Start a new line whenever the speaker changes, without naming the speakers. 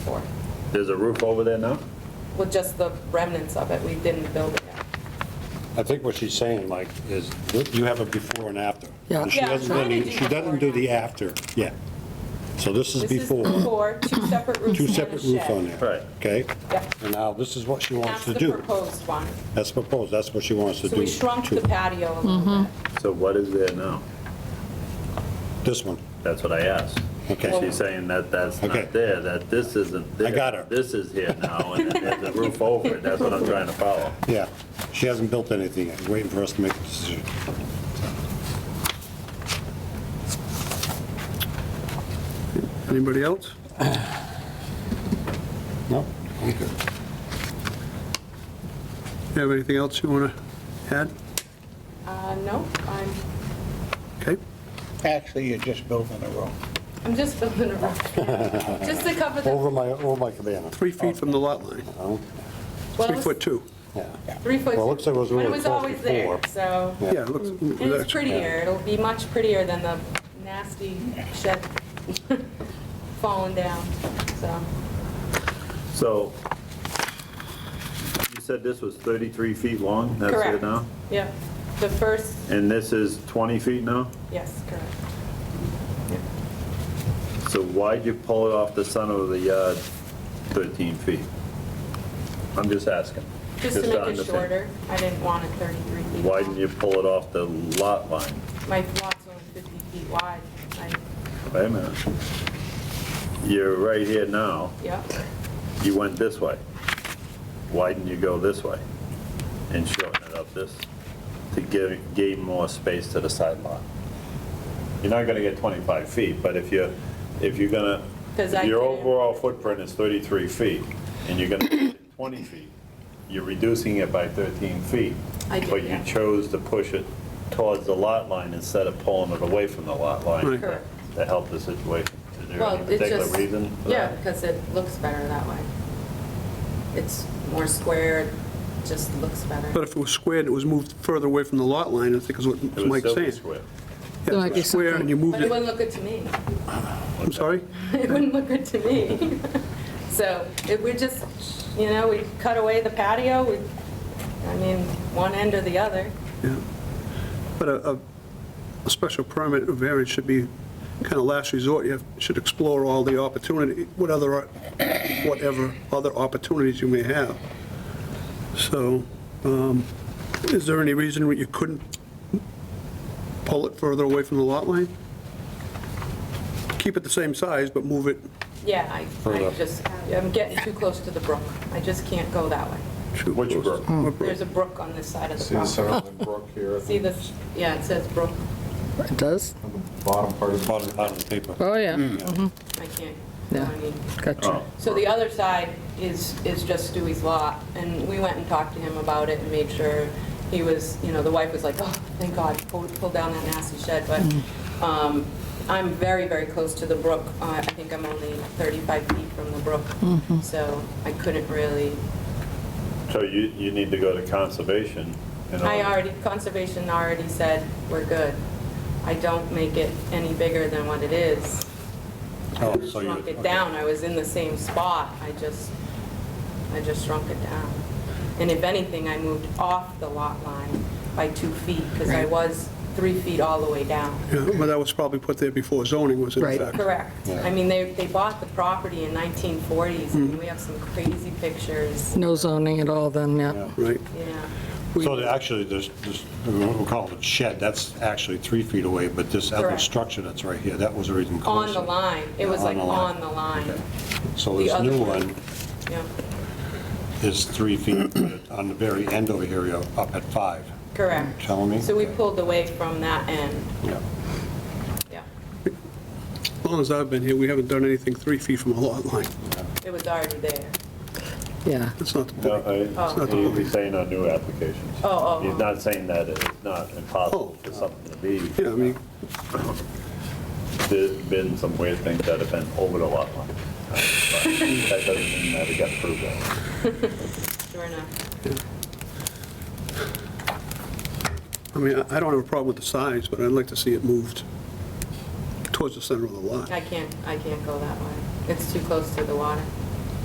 There's a roof over there now?
with just the remnants of it, we didn't build it yet.
I think what she's saying, like, is that you have a before and after.
Yeah.
And She
Yeah, I'm
doesn't
trying
do
to
the,
do
she doesn't do the after, yeah. So this is
This is
before,
before, two separate roofs
two
and a
separate roofs on
shed.
there.
Right.
Okay?
Yep.
And now this is what she
That's
wants to
the
do.
proposed one.
That's proposed, that's what she wants to do.
So we shrunk
to
the patio a little bit.
So what is there now?
This one.
That's what I asked.
Okay.
She's saying that that's
Okay.
not there, that this isn't there.
I got her.
This is here now, and then there's a roof over it, that's what I'm trying to follow.
Yeah, she hasn't built anything yet, waiting for us to make the decision.
Anybody else?
No? I'm good.
You have anything else you want to add?
Uh, no, I'm,
Okay,
Actually, you're just building a room.
I'm just building a roof. Just to cover the,
Over my, over my cabana.
three feet from the lot line,
Oh,
well,
three
it
foot
was
two.
yeah.
three foot.
Well, it looks like it was
but
really
It was
close
always there,
before.
so.
Yeah, it looks,
And it's
that's-
prettier, it'll be much prettier than the nasty shed falling down, so.
So you said this was 33 feet long? That's
Correct.
it now?
Yeah, the first,
And this is 20 feet now?
yes, correct.
So why'd you pull it off the center of the yard 13 feet? I'm just asking.
Just to make it
understand.
shorter, I didn't want it 33 feet.
Why
long.
didn't you pull it off the lot line?
My lot's only 50 feet wide, I,
Wait a minute. You're right here now,
yeah,
you went this way. Why didn't you go this way and shorten it up this, to give, gain more space to the side lot? You're not gonna get 25 feet, but if you're, if you're gonna,
'Cause
if
I
your
didn't-
overall footprint is 33 feet, and you're gonna make it 20 feet, you're reducing it by 13 feet.
I did,
But you
yeah.
chose to push it towards the lot line instead of pulling it away from the lot line
Right.
to
Correct.
to help the situation. Is there
well,
any
it's
particular
just.
reason for
Yeah,
that?
because it looks better that way. It's more square, it just looks
but
better.
if it was squared, it was moved further away from the lot line, I think is what
It was
Mike's
Sylvan
saying.
Square.
Yeah,
Like
if it was square and you
But
moved
it
it,
wouldn't look good to me.
I'm sorry?
It wouldn't look good to me. So it we just, you know, we cut away the patio, we, I mean, one end or the other.
Yeah. But a, a- a special permit or variance should be kind of last resort. You have- should explore all the opportunity, what other, whatever other opportunities you may have. So, um, is there any reason why you couldn't pull it further away from the lot line? Keep it the same size, but move it
Yeah, I, I just, I'm getting too close to the brook. I just can't go that way.
to...
Which brook?
There's a brook on this side of the
See the
property.
Sunderland Brook here at
See
the
this, yeah, it says brook.
It does?
on the bottom part of the
Bottom, bottom of the paper.
Oh, yeah,
I can't.
Yeah.
I mean,
gotcha.
Oh,
So the other side is, is just Stewie's lot, and we went and talked to him about it and made sure he was, you know, the wife was like, oh, thank God, pull, pull down that nasty shed, but, um, I'm very, very close to the brook. Uh, I think I'm only 35 feet from the brook, so I couldn't really,
So you, you need to go to conservation and all.
I already, conservation already said, we're good. I don't make it any bigger than what it is.
Oh, so you-
shrunk it
okay.
down, I was in the same spot, I just, I just shrunk it down. And if anything, I moved off the lot line by two feet, because I was three feet all the way down.
Yeah, Well, that was probably put there before zoning was in
Right.
effect.
Correct. I mean, they, they bought the property in 1940s,
Mm-hmm.
and we have some crazy pictures,
No zoning at all then, yeah.
Right.
yeah.
So the- actually, there's, there's- we'll call it a shed, that's actually three feet away, but this other
Correct.
structure that's right here, that was already enclosed.
On the line, it was
Yeah,
like
on the
on
line.
the line,
Okay. So
The
this
other
new
one.
one
yeah,
is three feet, but on the very end over here, you're up at five.
correct.
Tell me.
So we pulled away from that end,
Yeah.
yeah.
As long as I've been here, we haven't done anything three feet from a lot line.
It was already there.
Yeah,
That's not the
No,
point.
I- he- He's saying on new applications.
Oh, oh,
He's
oh.
not saying that it's not impossible for something to be.
Oh. Yeah, I mean,
There's been some weird things that have been over the lot line. But That doesn't mean that it got approved.
Sure enough.
I mean, I I don't have a problem with the size, but I'd like to see it moved towards the center of the lot.
I can't, I can't go that way. It's too close to the water.